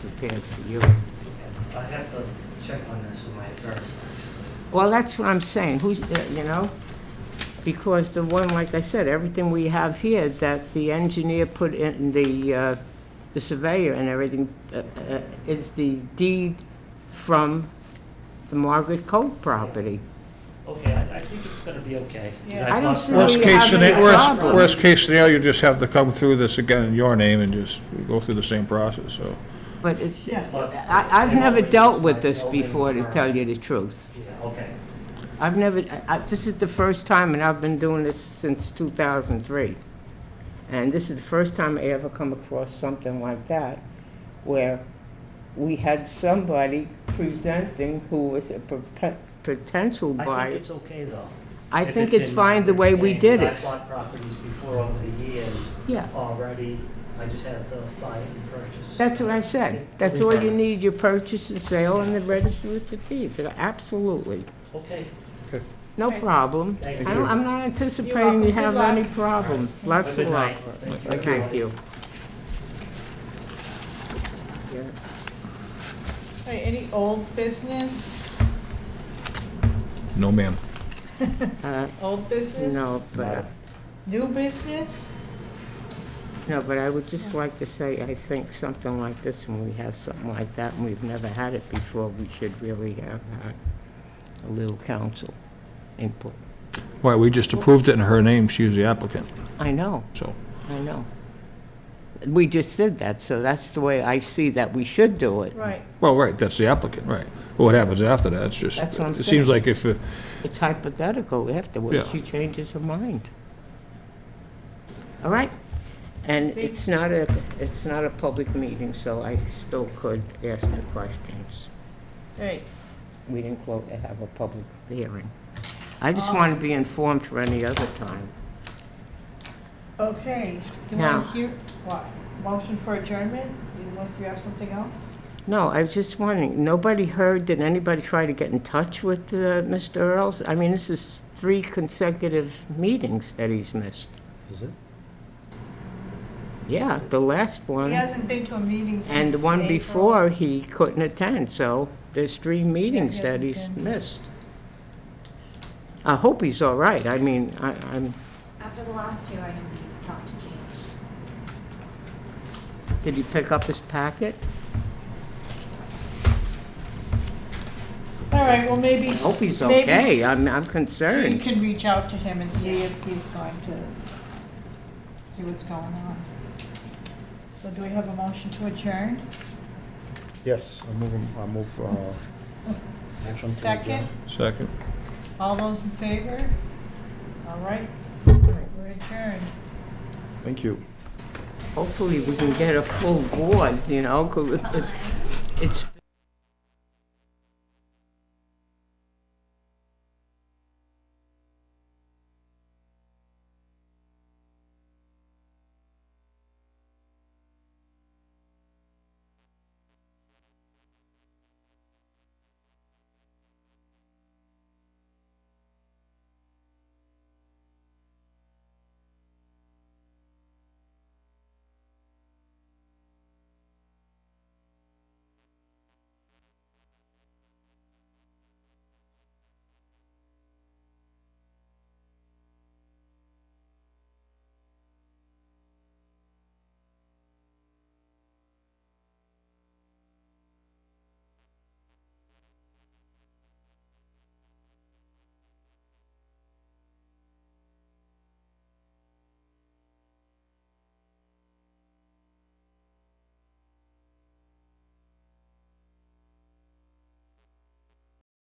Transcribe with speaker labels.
Speaker 1: prepared for you.
Speaker 2: I have to check on this with my attorney.
Speaker 1: Well, that's what I'm saying, who's, uh, you know? Because the one, like I said, everything we have here that the engineer put in, the, uh, the surveyor and everything, uh, uh, is the deed from the Margaret Cove property.
Speaker 2: Okay, I, I think it's gonna be okay. 'cause
Speaker 1: I don't
Speaker 2: bust
Speaker 1: see
Speaker 2: out-
Speaker 1: Well,
Speaker 3: Worst
Speaker 1: you
Speaker 3: case
Speaker 1: have
Speaker 3: scenario,
Speaker 1: any
Speaker 3: worst,
Speaker 1: problem.
Speaker 3: worst case scenario, you just have to come through this again in your name and just go through the same process, so.
Speaker 1: But it's,
Speaker 4: Yeah.
Speaker 2: but-
Speaker 1: I, I've
Speaker 2: You know,
Speaker 1: never
Speaker 2: it's
Speaker 1: dealt
Speaker 2: just
Speaker 1: with
Speaker 2: my
Speaker 1: this
Speaker 2: building
Speaker 1: before, to
Speaker 2: permit.
Speaker 1: tell you the truth.
Speaker 2: Yeah, okay,
Speaker 1: I've never, I, I- this is the first time, and I've been doing this since 2003. And this is the first time I ever come across something like that, where we had somebody presenting who was a prope- potential
Speaker 2: I think
Speaker 1: buyer.
Speaker 2: it's okay though.
Speaker 1: I
Speaker 2: if
Speaker 1: think it's
Speaker 2: in
Speaker 1: fine the
Speaker 2: my
Speaker 1: way we
Speaker 2: understanding,
Speaker 1: did it.
Speaker 2: I bought properties before over the years
Speaker 1: Yeah,
Speaker 2: already, I just had to buy it and purchase.
Speaker 1: that's what I said. That's all you need, your purchase and sale and the register with the deeds. Absolutely.
Speaker 2: Okay,
Speaker 1: No
Speaker 4: Okay.
Speaker 1: problem. I
Speaker 2: thank you.
Speaker 1: don't, I'm not anticipating you
Speaker 4: welcome.
Speaker 1: have
Speaker 4: Good luck.
Speaker 1: any problem. Lots of
Speaker 2: Good
Speaker 1: luck.
Speaker 2: night.
Speaker 1: Thank you. Yeah.
Speaker 4: All right, any old business?
Speaker 3: No, ma'am.
Speaker 1: Uh,
Speaker 4: Old business?
Speaker 1: No, but,
Speaker 4: New business?
Speaker 1: no, but I would just like to say, I think something like this, when we have something like that, and we've never had it before, we should really have uh, a little council input.
Speaker 3: Why, we just approved it in her name, she was the applicant,
Speaker 1: I know,
Speaker 3: so.
Speaker 1: I know. We just did that, so that's the way I see that we should do it.
Speaker 4: Right.
Speaker 3: Well, right, that's the applicant, right. What happens after that, it's just,
Speaker 1: That's what I'm
Speaker 3: it
Speaker 1: saying.
Speaker 3: seems like if, uh,
Speaker 1: It's hypothetical afterwards,
Speaker 3: Yeah.
Speaker 1: she changes her mind. All right? And
Speaker 4: Thank-
Speaker 1: it's not a, it's not a public meeting, so I still could ask the questions.
Speaker 4: All right,
Speaker 1: We didn't close, have a public hearing. I just want to be informed for any other time.
Speaker 4: okay. Do you
Speaker 1: Now-
Speaker 4: want to hear, what, motion for adjournment? You want, you have something else?
Speaker 1: No, I was just wondering, nobody heard, did anybody try to get in touch with uh, Mr. Earls? I mean, this is three consecutive meetings that he's missed.
Speaker 5: Is it?
Speaker 1: Yeah, the last one.
Speaker 4: He hasn't been to a meeting since
Speaker 1: And the one
Speaker 4: April.
Speaker 1: before, he couldn't attend, so there's three meetings
Speaker 4: he
Speaker 1: that
Speaker 4: hasn't
Speaker 1: he's
Speaker 4: been.
Speaker 1: missed. I hope he's all right. I mean, I, I'm,
Speaker 6: After the last two, I didn't talk to James.
Speaker 1: did he pick up his packet?
Speaker 4: All right, well, maybe.
Speaker 1: I hope he's
Speaker 4: maybe
Speaker 1: okay. I'm, I'm
Speaker 4: You
Speaker 1: concerned.
Speaker 4: can reach out to him and see if he's going to, see what's going on. So do we have a motion to adjourn?
Speaker 5: Yes, I move, I move, uh, motion to
Speaker 4: Second?
Speaker 5: adjourn.
Speaker 3: second.
Speaker 4: All those in favor? All right, All right, we're adjourned.
Speaker 5: Thank you.
Speaker 1: Hopefully, we can get a full board, you know, 'cause it's,